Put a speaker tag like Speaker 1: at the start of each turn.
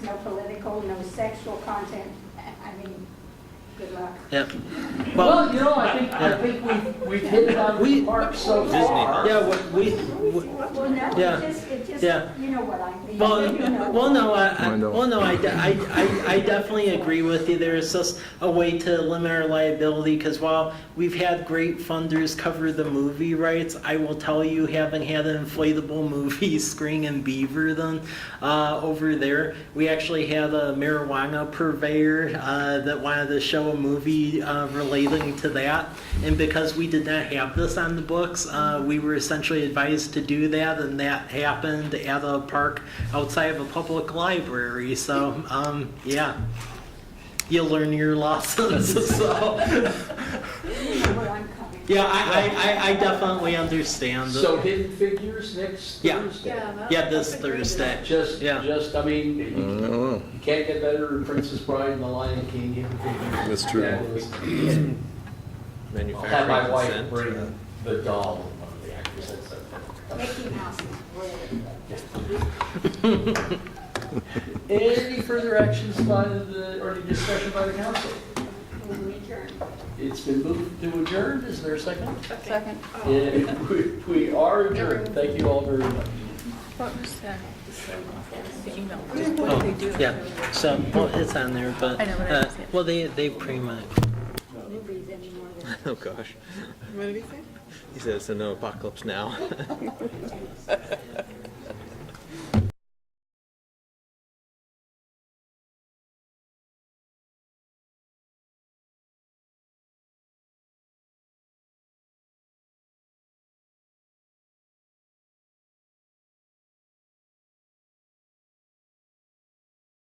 Speaker 1: no political, no sexual content. I mean, good luck.
Speaker 2: Yeah. Well,
Speaker 3: Well, you know, I think, I
Speaker 2: Yeah.
Speaker 3: think we've, we've hit it out of
Speaker 2: We-
Speaker 3: the park so
Speaker 4: Disney.
Speaker 3: far.
Speaker 2: yeah, what we, we-
Speaker 1: Well, no,
Speaker 2: Yeah.
Speaker 1: it just, it just,
Speaker 2: Yeah.
Speaker 1: you know what I mean.
Speaker 2: well,
Speaker 1: You know.
Speaker 2: well, no, I, I-
Speaker 5: Window.
Speaker 2: well, no, I, de- I, I- I definitely agree with you. There is just a way to limit our liability, because while we've had great funders cover the movie rights, I will tell you, having had an inflatable movie screen in Beaver then, uh, over there, we actually had a marijuana purveyor, uh, that wanted to show a movie, uh, relating to that. And because we did not have this on the books, uh, we were essentially advised to do that, and that happened at a park outside of a public library. So, um, yeah, you learn your lessons. So,
Speaker 1: You know where I'm coming.
Speaker 2: yeah, I, I, I, I definitely understand.
Speaker 3: So Hidden Figures next
Speaker 2: Yeah.
Speaker 3: Thursday.
Speaker 2: yeah, this Thursday.
Speaker 3: Just,
Speaker 2: Yeah. Mm-hmm.
Speaker 3: just, I mean, you
Speaker 5: know.
Speaker 3: you can't get better than Princess Bride and The Lion King, Hidden Figures.
Speaker 5: That's true.
Speaker 3: true. I'll have my
Speaker 4: Manufacturing
Speaker 3: wife
Speaker 4: consent.
Speaker 3: bring the doll, one of the actresses.
Speaker 1: from. Mickey Mouse is brilliant.
Speaker 3: Any further actions by the, or any discussion by the council?
Speaker 1: We adjourn.
Speaker 3: It's been moved to adjourn, is there a second?
Speaker 6: Second.
Speaker 3: Yeah, we- We are adjourned, thank you all very much.
Speaker 6: What was that? The email.
Speaker 2: Oh, yeah. So, well, it's on there, but
Speaker 6: I know, but I
Speaker 2: uh,
Speaker 6: don't see it.
Speaker 2: well, they they pretty much.
Speaker 1: Who reads any more than
Speaker 4: Oh, gosh.
Speaker 6: What did he say?
Speaker 4: He says, "No apocalypse now."